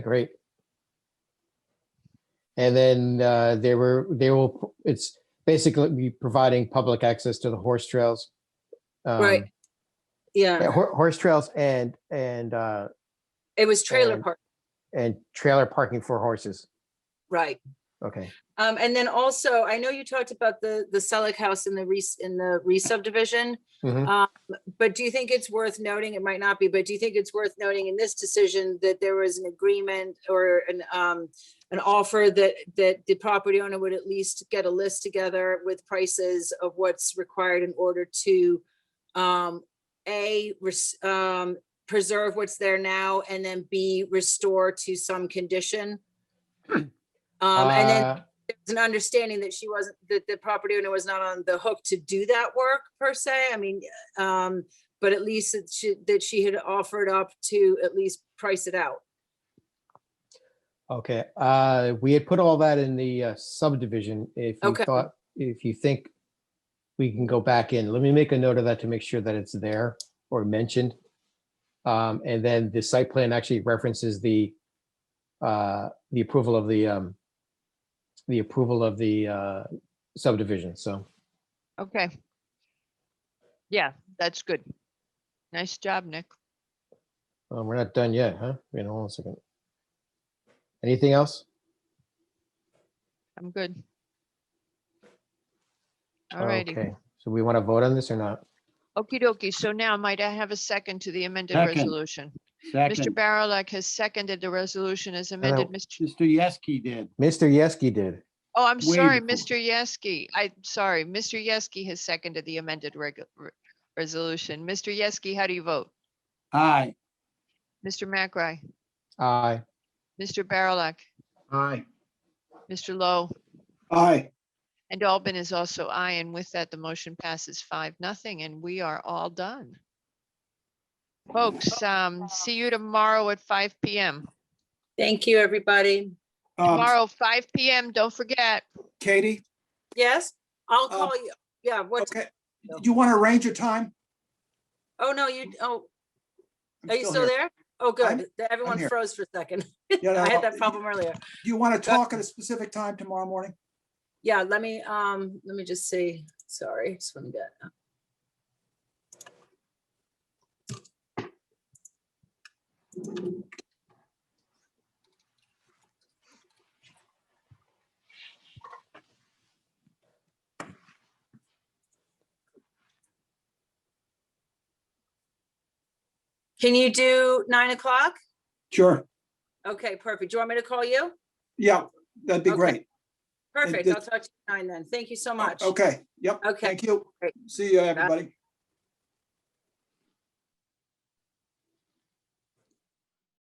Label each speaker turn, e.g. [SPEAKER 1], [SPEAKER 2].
[SPEAKER 1] Great. And then uh, they were, they will, it's basically be providing public access to the horse trails.
[SPEAKER 2] Right.
[SPEAKER 1] um, yeah,
[SPEAKER 2] Yeah,
[SPEAKER 1] hor- Horse trails and, and, uh,
[SPEAKER 2] it was trailer
[SPEAKER 1] and-
[SPEAKER 2] park,
[SPEAKER 1] and trailer parking for horses.
[SPEAKER 2] right.
[SPEAKER 1] Okay,
[SPEAKER 2] Um, and then also, I know you talked about the, the Selick House in the re, in the re-subdivision.
[SPEAKER 1] Mhm.
[SPEAKER 2] Um, But do you think it's worth noting, it might not be, but do you think it's worth noting in this decision that there was an agreement or an, um, an offer that, that the property owner would at least get a list together with prices of what's required in order to, um, A, res- um, preserve what's there now, and then B, restore to some condition? Um, and then
[SPEAKER 1] Uh,
[SPEAKER 2] it's an understanding that she wasn't, that the property owner was not on the hook to do that work per se. I mean, um, but at least that she, that she had offered up to at least price it out.
[SPEAKER 1] Okay, uh, we had put all that in the uh, subdivision. If you
[SPEAKER 2] Okay.
[SPEAKER 1] thought, if you think we can go back in, let me make a note of that to make sure that it's there or mentioned. Um, and then the site plan actually references the uh, the approval of the um, the approval of the uh, subdivision, so.
[SPEAKER 3] Okay. Yeah, that's good. Nice job, Nick.
[SPEAKER 1] Um, we're not done yet, huh? Wait, hold on a second. Anything else?
[SPEAKER 3] I'm good. All righty.
[SPEAKER 1] Okay. So we want to vote on this or not?
[SPEAKER 3] Okie dokie. So now might I have a second to the amended
[SPEAKER 4] Second.
[SPEAKER 3] resolution? Mr.
[SPEAKER 4] Second, Uh,
[SPEAKER 3] Barilak has seconded the resolution as amended. Mr.
[SPEAKER 4] Mr. Yeski did.
[SPEAKER 1] Mr. Yeski did.
[SPEAKER 3] Oh, I'm
[SPEAKER 4] way
[SPEAKER 3] sorry, Mr.
[SPEAKER 4] before.
[SPEAKER 3] Yeski. I'm sorry, Mr. Yeski has seconded the amended regu- re- resolution. Mr. Yeski, how do you vote?
[SPEAKER 4] Aye.
[SPEAKER 3] Mr. McRae,
[SPEAKER 1] Aye.
[SPEAKER 3] Mr. Barilak,
[SPEAKER 4] Aye.
[SPEAKER 3] Mr. Lowe,
[SPEAKER 4] Aye.
[SPEAKER 3] and Albin is also aye. And with that, the motion passes five, nothing, and we are all done. Folks, um, see you tomorrow at five PM.
[SPEAKER 2] Thank you, everybody.
[SPEAKER 5] Um,
[SPEAKER 3] Tomorrow, five PM, don't forget.
[SPEAKER 5] Katie,
[SPEAKER 2] Yes, I'll
[SPEAKER 5] Uh,
[SPEAKER 2] call you. Yeah, what,
[SPEAKER 5] okay, do you want to arrange your time?
[SPEAKER 2] oh, no, you, oh,
[SPEAKER 5] I'm
[SPEAKER 2] are you still
[SPEAKER 5] here.
[SPEAKER 2] there? Oh,
[SPEAKER 5] I'm-
[SPEAKER 2] good. Th- Everyone
[SPEAKER 5] here.
[SPEAKER 2] froze for a second.
[SPEAKER 5] Yeah,
[SPEAKER 2] I had
[SPEAKER 5] no,
[SPEAKER 2] that problem earlier.
[SPEAKER 5] Do you
[SPEAKER 2] Uh,
[SPEAKER 5] want to talk at a specific time tomorrow morning?
[SPEAKER 2] Yeah, let me, um, let me just see. Sorry, just want to get. uh. Can you do nine o'clock?
[SPEAKER 5] Sure.
[SPEAKER 2] Okay, perfect. Do you want me to call you?
[SPEAKER 5] Yeah, that'd be
[SPEAKER 2] Okay.
[SPEAKER 5] great.
[SPEAKER 2] Perfect.
[SPEAKER 5] did- Oh,
[SPEAKER 2] I'll talk to you at nine then. Thank you so much.
[SPEAKER 5] Okay, yep.
[SPEAKER 2] Okay.
[SPEAKER 5] Thank you.
[SPEAKER 2] Great.
[SPEAKER 5] See you, everybody.